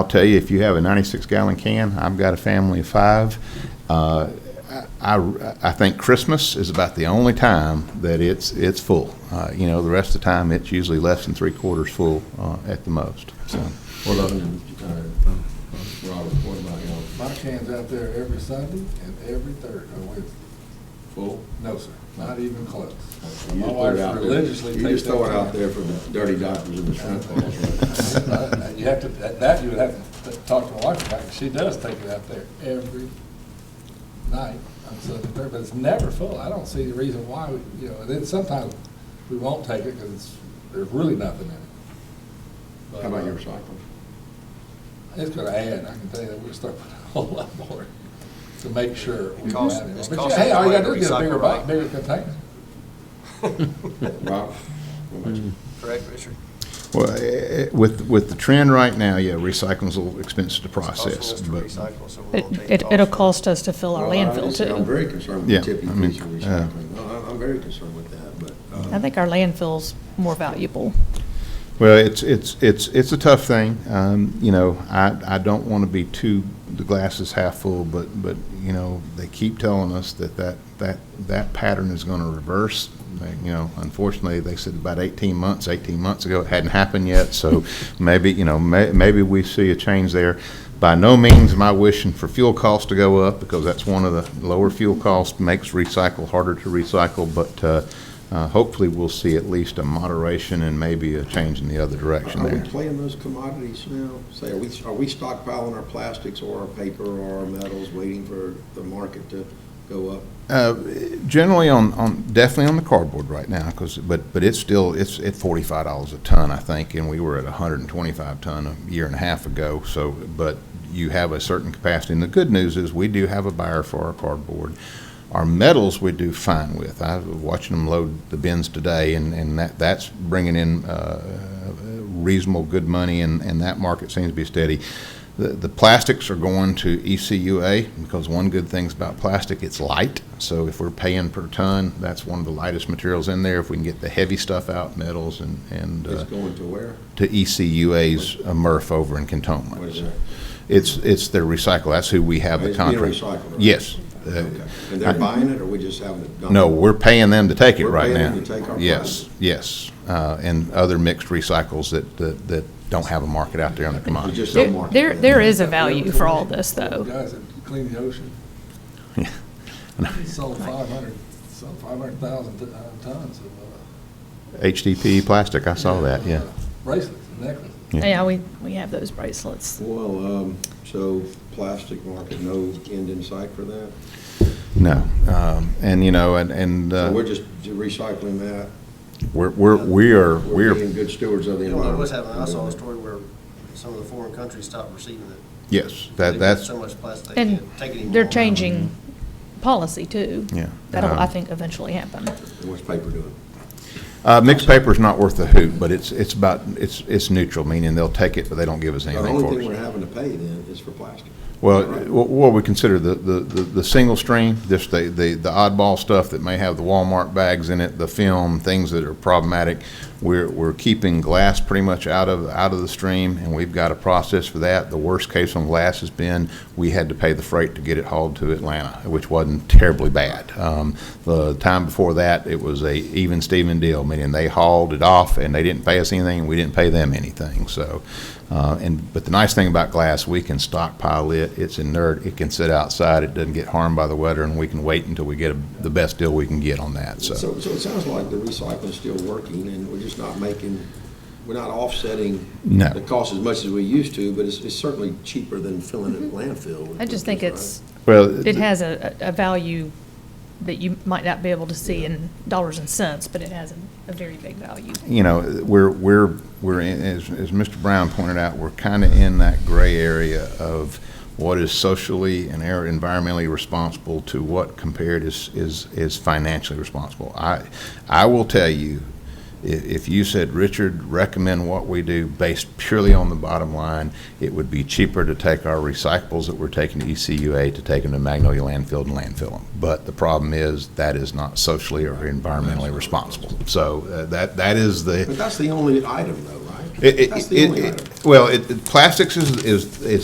I'll tell you, if you have a 96 gallon can, I've got a family of five. Uh, I, I- I think Christmas is about the only time that it's, it's full. Uh, You know, the rest of the time, it's usually less than three quarters full uh, at the most, so. Hold up, Robert, what about y'all? My can's out there every Sunday and every third, or Wednesday. Full? No, sir, not even close. You My just throw it wife out there. religiously You takes just that throw it out can. there for the dirty doctors and the shrimp balls, Uh, You have to, that- that you would have to talk to my wife about, 'cause she does take it out there every night on Sunday, and third, but it's never full. I don't see the reason why, we- you know, and then sometimes we won't take it because there's really nothing in it. right? But, How about your uh, recycling? It's gonna add, I can tell you that, we're gonna start putting a whole lot more to make sure. we It costs- have it. it's But yeah, costing Hey, all you gotta do quite is a get a bigger recycle, box, right? bigger container. Robert? what about you? Correct, Richard? Well, eh, with, with the trend right now, yeah, recycling's a little expensive to process, It's but. costing us to recycle, so we'll take It, off. it'll cost us to fill our Well, I landfill understand. I'm too. very concerned Yeah, with tippy I mean, fees and uh, recycling. No, I- I'm very concerned with that, but. uh, I think our landfill's more valuable. Well, it's, it's, it's, it's a tough thing. Um, you know, I, I don't want to be too, the glass is half full, but, but, you know, they keep telling us that that, that, that pattern is going to reverse. They- You know, unfortunately, they said about 18 months, 18 months ago, it hadn't happened yet. So maybe, you know, may, maybe we see a change there. By no means am I wishing for fuel costs to go up because that's one of the lower fuel costs makes recycle harder to recycle. But, uh, uh, hopefully, we'll see at least a moderation and maybe a change in the other direction Are we there. playing those commodities now? Say, are we, are we stockpiling our plastics or our paper or our metals, waiting for the market to go up? Uh, Generally on, on, definitely on the cardboard right now, because, but, but it's still, it's at forty-five dollars a ton, I think, and we were at hundred and twenty-five ton a year and a half ago, so, but you have a certain capacity, and the good news is, we do have a buyer for our cardboard. Our metals, we do fine with. I was watching them load the bins today, and, and that, that's bringing in, uh, reasonable, good money, and, and that market seems to be steady. The, the plastics are going to E ECUA because one good thing's about plastic, it's light. So if we're paying per ton, that's one of the lightest materials in there. If we can get the heavy stuff out, metals and, and It's uh, going to where? to E ECUA's uh, MRF over in What is Cantonment. that? It's, it's their recycle. That's who we have the It's being contract. recycled, right? Yes. Uh, Okay. And they're buying it, or we just having it dumped? No, we're paying them to take it We're right paying now. them to take our Yes, yes. Uh, and other mixed recycles that, that, that don't have a market out there on the We commodity. just There, don't market there- it. there is a value for all this though. Guys that clean the ocean. Yeah. Sold five hundred, sold five hundred thousand uh, tons of. uh, HDPE plastic, I saw that, yeah. Bracelets and necklaces. Yeah. Yeah, we, we have those bracelets. Well, um, so plastic market, no end in sight for that? No, um, and you know, and, and, So we're uh, just recycling that? we're, we're, we are, We're we're, being good stewards of the You know, environment? what's happening, I saw a story where some of the foreign countries stopped receiving it. yes, They've that, got that's, So much plastic, they And can't take it anymore. they're changing policy too. Yeah. That'll, I Um, think, eventually happen. And What's paper doing? uh, mixed paper's not worth a hoot, but it's, it's about, it's, it's neutral, meaning they'll take it, but they don't give us The anything only for thing it. we're having to pay then is for plastic. Well, what what we consider the, the, the the single stream, just the, the the oddball stuff that may have the Walmart bags in it, the film, things that are problematic. We're, we're keeping glass pretty much out of, out of the stream, and we've got a process for that. The worst case on glass has been, we had to pay the freight to get it hauled to Atlanta, which wasn't terribly bad. Um, The time before that, it was a even Steven deal, meaning they hauled it off, and they didn't pay us anything, and we didn't pay them anything, so. Uh, And, but the nice thing about glass, we can stockpile it, it's inert, it can sit outside, it doesn't get harmed by the weather, and we can wait until we get a- the best deal we can get on that, so. So, so it sounds like the recycling's still working, and we're just not making, we're not offsetting No. the cost as much as we used to, but it's, it's certainly cheaper than filling a landfill. Mm-hmm. I just think it's, Well, it has a, a a value that you might not be able to see in dollars and cents, but it has a- a very big value. you know, we're, we're, we're, in- as, as Mr. Brown pointed out, we're kind of in that gray area of what is socially and air- environmentally responsible to what compared is, is, is financially responsible. I, I will tell you, i- if you said, Richard, recommend what we do based purely on the bottom line, it would be cheaper to take our recyclables that we're taking to E ECUA to take them to Magnolia landfill and landfill them. But the problem is, that is not socially or environmentally responsible. So uh, that, that is the, But that's the only item though, right? It- it- That's the it- only it- item. Well, it, it- plastics is, is, is